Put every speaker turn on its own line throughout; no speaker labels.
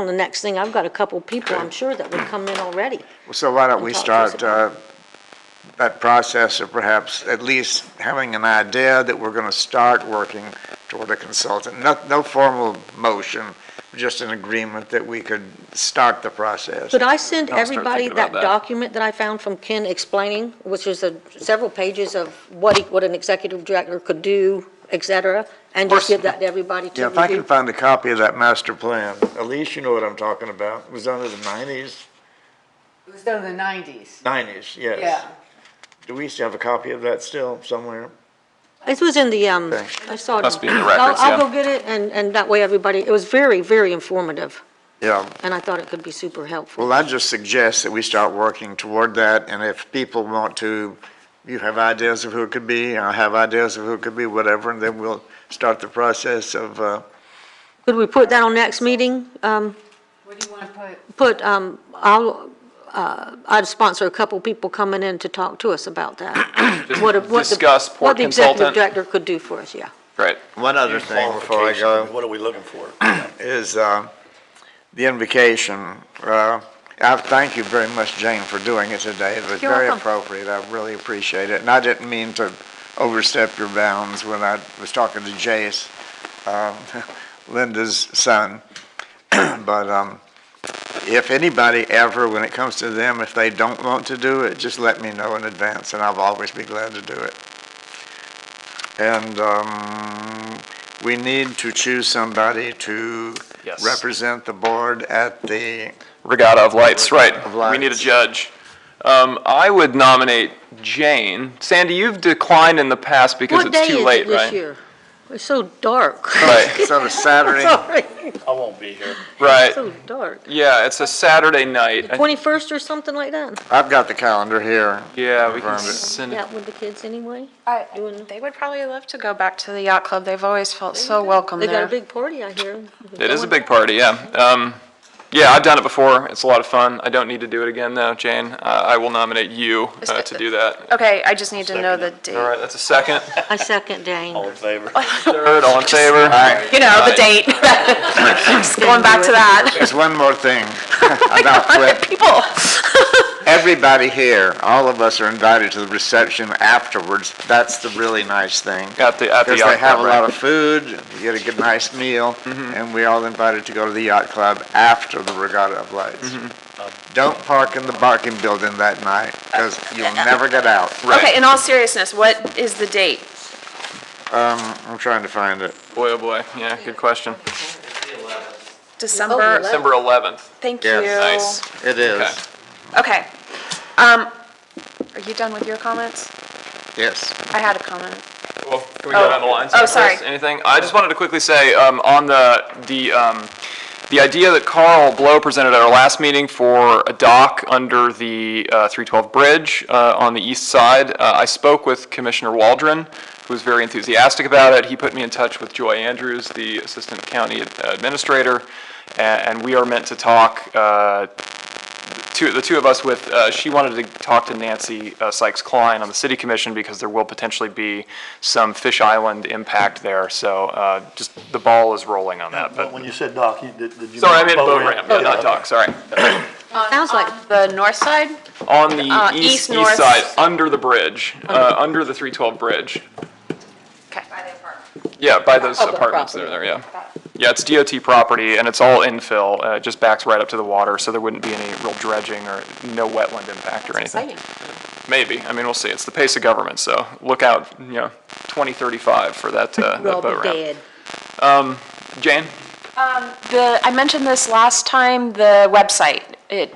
on the next thing, I've got a couple people, I'm sure, that would come in already.
So why don't we
And talk to us
start, uh, that process of perhaps at least having an idea that we're gonna start working toward a consultant? No, no formal motion, just an agreement that we could start the process.
Could I send
I'll start
everybody
thinking
that
about that.
document that I found from Ken explaining, which is a- several pages of what, he- what an executive director could do, et cetera, and just give that to everybody to
Yeah, if I
review?
can find a copy of that master plan, Elise, you know what I'm talking about, it was done in the nineties,
It was done in the nineties.
nineties, yes.
Yeah.
Do we still have a copy of that still somewhere?
It was in the, um,
Okay.
I saw it.
Must be in the
I'll-
records,
I'll
yeah.
go get it, and, and that way everybody, it was very, very informative,
Yeah,
and I thought it could be super helpful.
Well, I just suggest that we start working toward that, and if people want to, you have ideas of who it could be, I have ideas of who it could be, whatever, and then we'll start the process of, uh,
Could we put that on next meeting? Um,
What do you want to put?
put, um, I'll, uh, I'd sponsor a couple people coming in to talk to us about that. What a- what the-
discuss port
What the executive
consultant.
director could do for us, yeah.
Great.
one other thing before I go.
What are we looking for?
is uh, the invocation. Uh, I thank you very much, Jane, for doing it today. It was
You're
very
welcome.
appropriate. I really appreciate it. And I didn't mean to overstep your bounds when I was talking to Jace, uh, Linda's son. But um, if anybody ever, when it comes to them, if they don't want to do it, just let me know in advance, and I'll always be glad to do it. And um, we need to choose somebody to
Yes.
represent the board at the,
Regatta of Lights, right.
Of
We need a
Lights.
judge. Um, I would nominate Jane. Sandy, you've declined in the past because
What
it's
day
too
is
late,
it
right?
this year? It's so dark.
Right,
it's on a Saturday.
Sorry,
I won't be here.
right.
so dark.
Yeah, it's a Saturday night. I-
21st or something like that?
I've got the calendar here.
Yeah, we can
Confirmed it.
send it.
Yeah, with the kids anyway?
I,
Doing-
they would probably love to go back to the yacht club. They've always felt so welcome
They got a
there.
big party, I hear.
It is a big party, yeah. Um, yeah, I've done it before. It's a lot of fun. I don't need to do it again though, Jane. Uh, I will nominate you uh, to do that.
Okay, I just need to know the
All
date.
right, that's a second.
I second Dane.
All in favor?
Third, all in favor?
You know, the date. Going back to that.
There's one more thing. And I'll quit.
People.
Everybody here, all of us are invited to the reception afterwards. That's the really nice thing.
At the, at the.
Because they have a
outcome, right? Mm-hmm.
lot of food, you get a good, nice meal, and we all invited to go to the yacht club after the Regatta of Lights.
Mm-hmm.
Don't park in the parking building that night, because you'll never get out.
Okay, in all seriousness, what is the date?
I'm trying to find it.
Boy, oh boy, yeah, good question.
December,
December 11th.
thank you.
Yes.
Nice.
It
Okay.
is,
Okay. Um, are you done with your comments?
yes.
I had a comment.
Well, can we go down the lines?
Oh, sorry.
Anything? I just wanted to quickly say, um, on the, the, um, the idea that Carl Blow presented at our last meeting for a dock under the, uh, three twelve bridge, uh, on the east side, uh, I spoke with Commissioner Waldron, who was very enthusiastic about it. He put me in touch with Joy Andrews, the Assistant County Administrator, a- and we are meant to talk, uh, two, the two of us with, uh, she wanted to talk to Nancy uh, Sykes Klein on the city commission because there will potentially be some Fish Island impact there. So, uh, just the ball is rolling on that,
But
but,
when you said dock, you, did, did you?
sorry, I meant
mean
boat ramp, yeah, not dock, sorry.
Sounds like,
Uh, The north side?
On
Uh,
the
east,
east, east
north.
side, under the bridge, uh, under the three twelve bridge.
Okay.
Yeah, by those
Public
apartments there,
property.
there, yeah. Yeah, it's DOT property and it's all infill, uh, it just backs right up to the water, so there wouldn't be any real dredging or no wetland impact or anything. Maybe, I mean, we'll see, it's the pace of government, so look out, you know, twenty thirty-five for that, uh,
we'll all
that boat
be dead.
ramp. Jane,
The, I mentioned this last time, the website, it,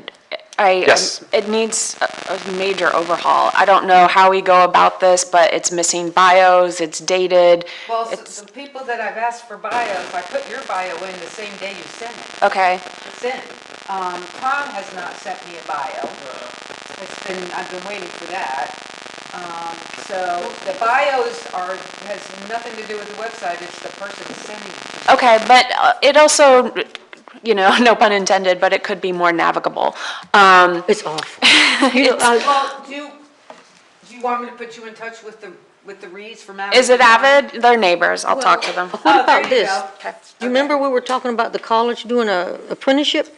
I, um,
Yes.
it needs a, a major overhaul. I don't know how we go about this, but it's missing bios, it's dated,
Well,
it's,
s- the people that I've asked for bios, I put your bio in the same day you sent it.
okay.
It's in. Um, Tom has not sent me a bio. It's been, I've been waiting for that. Um, so the bios are, has nothing to do with the website, it's the person sending it.
Okay, but uh, it also, you know, no pun intended, but it could be more navigable. Um,
It's awful. You know, I-
Well, do, you- do you want me to put you in touch with the with the Reeds from Avid?
Is it Avid? They're neighbors. I'll talk to them.
What
Oh, there
about
you
this?
go.
You remember we were talking about the college doing a apprenticeship?